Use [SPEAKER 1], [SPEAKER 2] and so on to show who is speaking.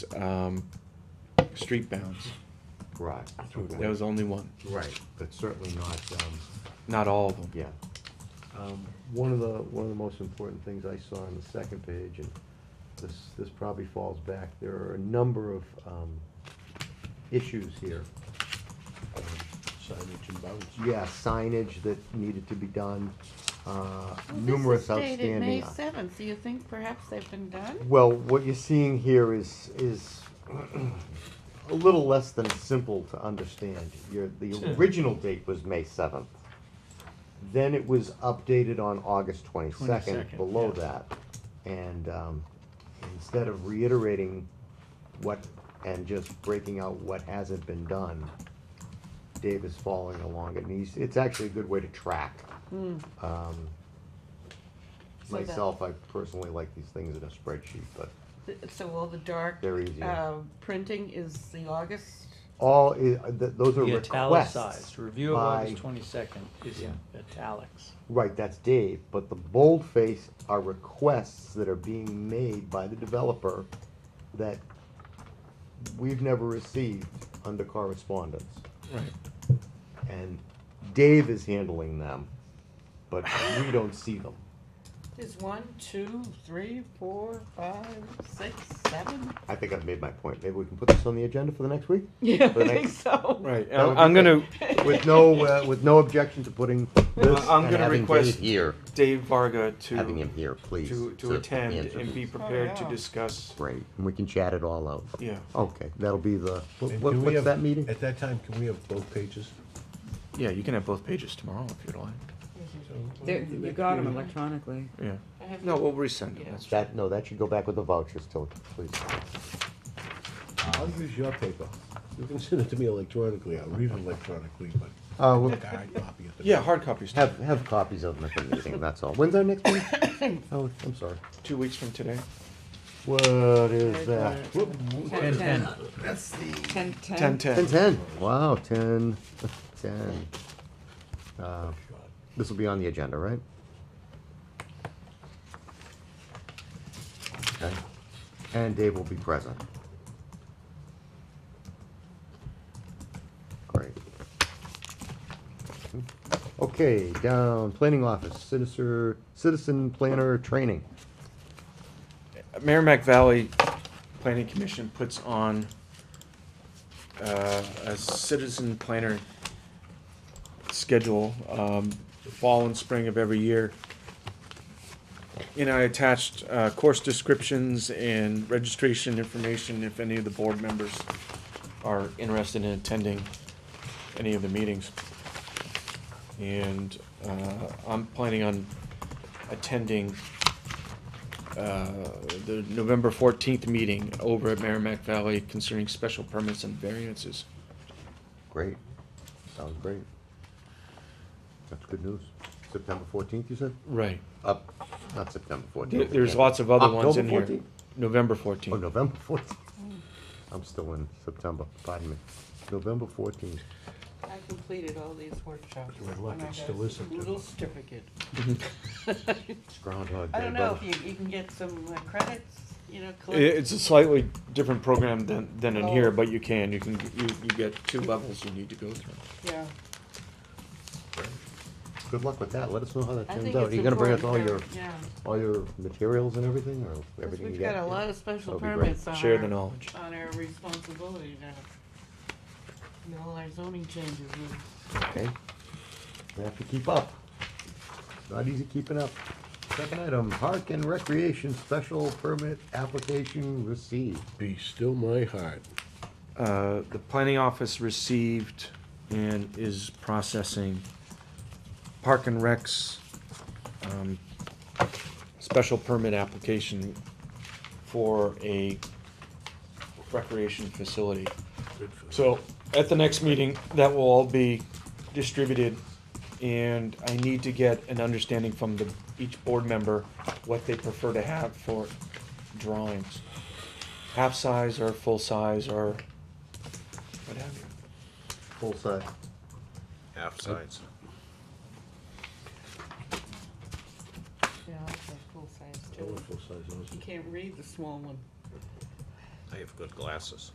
[SPEAKER 1] um, street bounds.
[SPEAKER 2] Right.
[SPEAKER 1] There was only one,
[SPEAKER 2] Right, but certainly not, um,
[SPEAKER 1] not all of them.
[SPEAKER 2] yeah. Um, One of the, one of the most important things I saw on the second page, and this, this probably falls back, there are a number of, um, issues here.
[SPEAKER 3] signage and bounds.
[SPEAKER 2] Yeah, signage that needed to be done, uh,
[SPEAKER 4] Well, this
[SPEAKER 2] numerous
[SPEAKER 4] is dated
[SPEAKER 2] outstanding.
[SPEAKER 4] May seventh, do you think perhaps they've been done?
[SPEAKER 2] Well, what you're seeing here is, is a little less than simple to understand. Your, the original date was May seventh. Then it was updated on August twenty-second,
[SPEAKER 3] 22nd,
[SPEAKER 2] below
[SPEAKER 3] yeah.
[SPEAKER 2] that. And, um, instead of reiterating what, and just breaking out what hasn't been done, Dave is following along, and he's, it's actually a good way to track. Um,
[SPEAKER 4] Hmm. So that-
[SPEAKER 2] Myself, I personally like these things in a spreadsheet, but
[SPEAKER 4] Th- So all the dark,
[SPEAKER 2] they're easier.
[SPEAKER 4] uh, printing is the August,
[SPEAKER 2] All, i- th- those are
[SPEAKER 3] The
[SPEAKER 2] requests.
[SPEAKER 3] italicized, review of
[SPEAKER 2] by-
[SPEAKER 3] August twenty-second is in italics.
[SPEAKER 2] Right, that's Dave, but the bold face are requests that are being made by the developer that we've never received under correspondence.
[SPEAKER 1] Right.
[SPEAKER 2] And Dave is handling them, but we don't see them.
[SPEAKER 4] there's one, two, three, four, five, six, seven?
[SPEAKER 2] I think I've made my point. Maybe we can put this on the agenda for the next week?
[SPEAKER 4] Yeah,
[SPEAKER 2] For
[SPEAKER 4] I
[SPEAKER 2] the
[SPEAKER 4] think
[SPEAKER 2] next,
[SPEAKER 4] so.
[SPEAKER 1] Right,
[SPEAKER 2] That would
[SPEAKER 1] I'm
[SPEAKER 2] be
[SPEAKER 1] I'm gonna,
[SPEAKER 2] with no, uh, with no objection to putting this
[SPEAKER 1] I'm
[SPEAKER 2] and
[SPEAKER 1] gonna
[SPEAKER 2] having
[SPEAKER 1] request-
[SPEAKER 2] Dave-
[SPEAKER 5] here,
[SPEAKER 1] Dave Varga
[SPEAKER 5] having him
[SPEAKER 1] to,
[SPEAKER 5] here, please.
[SPEAKER 1] to, to attend
[SPEAKER 5] answer
[SPEAKER 1] and be
[SPEAKER 5] these.
[SPEAKER 1] prepared to
[SPEAKER 4] yeah.
[SPEAKER 1] discuss,
[SPEAKER 5] Great, and we can chat it all out.
[SPEAKER 1] yeah.
[SPEAKER 2] Okay, that'll be the, what-
[SPEAKER 3] And
[SPEAKER 2] what-
[SPEAKER 3] do we
[SPEAKER 2] what's
[SPEAKER 3] have-
[SPEAKER 2] that meeting?
[SPEAKER 3] At that time, can we have both pages?
[SPEAKER 1] Yeah, you can have both pages tomorrow if you'd like,
[SPEAKER 6] There- You got them electronically.
[SPEAKER 1] yeah.
[SPEAKER 4] I have
[SPEAKER 1] No,
[SPEAKER 4] to-
[SPEAKER 1] we'll resend it,
[SPEAKER 4] Yeah.
[SPEAKER 1] that's-
[SPEAKER 2] That, no, that should go back with the vouchers till, please.
[SPEAKER 7] I'll use your paper. You can send it to me electronically. I'll read it electronically, but
[SPEAKER 2] Uh, we'll
[SPEAKER 7] a hard copy at the.
[SPEAKER 1] Yeah, hard copies,
[SPEAKER 2] have, have copies of them at the meeting, that's all. When's our next meeting? Oh, I'm sorry.
[SPEAKER 1] two weeks from today.
[SPEAKER 2] What is that?
[SPEAKER 6] Ten, ten. Ten, ten.
[SPEAKER 1] Ten,
[SPEAKER 2] Ten,
[SPEAKER 1] ten.
[SPEAKER 2] ten. Wow, ten, ten. Uh, This will be on the agenda, right? Okay. And Dave will be present. Great. Okay, down, planning office, citizen, citizen planner training.
[SPEAKER 1] Merrimack Valley Planning Commission puts on uh, a citizen planner schedule, um, fall and spring of every year. And I attached uh, course descriptions and registration information if any of the board members are interested in attending any of the meetings. And uh, I'm planning on attending uh, the November 14th meeting over at Merrimack Valley concerning special permits and variances.
[SPEAKER 2] Great. Sounds great. That's good news. September fourteenth, you said?
[SPEAKER 1] Right.
[SPEAKER 2] Up, not September
[SPEAKER 1] There-
[SPEAKER 2] fourteenth.
[SPEAKER 1] There's lots of other ones
[SPEAKER 2] October
[SPEAKER 1] in here.
[SPEAKER 2] 14th?
[SPEAKER 1] November
[SPEAKER 2] Oh,
[SPEAKER 1] 14th.
[SPEAKER 2] November fourteenth. I'm still in September, pardon me. November fourteenth.
[SPEAKER 4] I completed all these workshops.
[SPEAKER 7] Good luck,
[SPEAKER 4] and I
[SPEAKER 7] it
[SPEAKER 4] got
[SPEAKER 7] still is
[SPEAKER 4] a Little certificate. Mm-hmm.
[SPEAKER 2] It's Groundhog Day.
[SPEAKER 4] I don't know if
[SPEAKER 2] brother.
[SPEAKER 4] you, you can get some uh, credits, you know,
[SPEAKER 1] I-
[SPEAKER 4] collect.
[SPEAKER 1] It's a slightly different program than, than in here,
[SPEAKER 4] Oh.
[SPEAKER 1] but you can, you can, you, you get two levels you need to go through.
[SPEAKER 4] Yeah.
[SPEAKER 2] Good luck with that. Let us know how that
[SPEAKER 4] I
[SPEAKER 2] turns
[SPEAKER 4] think
[SPEAKER 2] out.
[SPEAKER 4] it's
[SPEAKER 2] Are you gonna bring us all
[SPEAKER 4] important
[SPEAKER 2] your,
[SPEAKER 4] for- Yeah,
[SPEAKER 2] all your materials and everything, or
[SPEAKER 4] 'cause
[SPEAKER 2] everything you
[SPEAKER 4] we've
[SPEAKER 2] got?
[SPEAKER 4] got a lot of
[SPEAKER 2] That'll
[SPEAKER 4] special
[SPEAKER 2] be great.
[SPEAKER 4] permits on
[SPEAKER 1] Share the
[SPEAKER 4] our-
[SPEAKER 1] knowledge.
[SPEAKER 4] on our responsibility now. And all our zoning changes, we-
[SPEAKER 2] Okay. We have to keep up. It's Not easy keeping up. Second item, park and recreation special permit application received.
[SPEAKER 7] Be still my heart.
[SPEAKER 1] Uh, the planning office received and is processing Park and Rec's, um, special permit application for a recreation facility. So, at the next meeting, that will all be distributed, and I need to get an understanding from the, each board member, what they prefer to have for drawings. Half-size or full-size or what have you.
[SPEAKER 2] Full size.
[SPEAKER 3] Half sides.
[SPEAKER 4] yeah, that's a full size too.
[SPEAKER 7] Full size, those
[SPEAKER 4] You can't read the small one.
[SPEAKER 3] I have good glasses.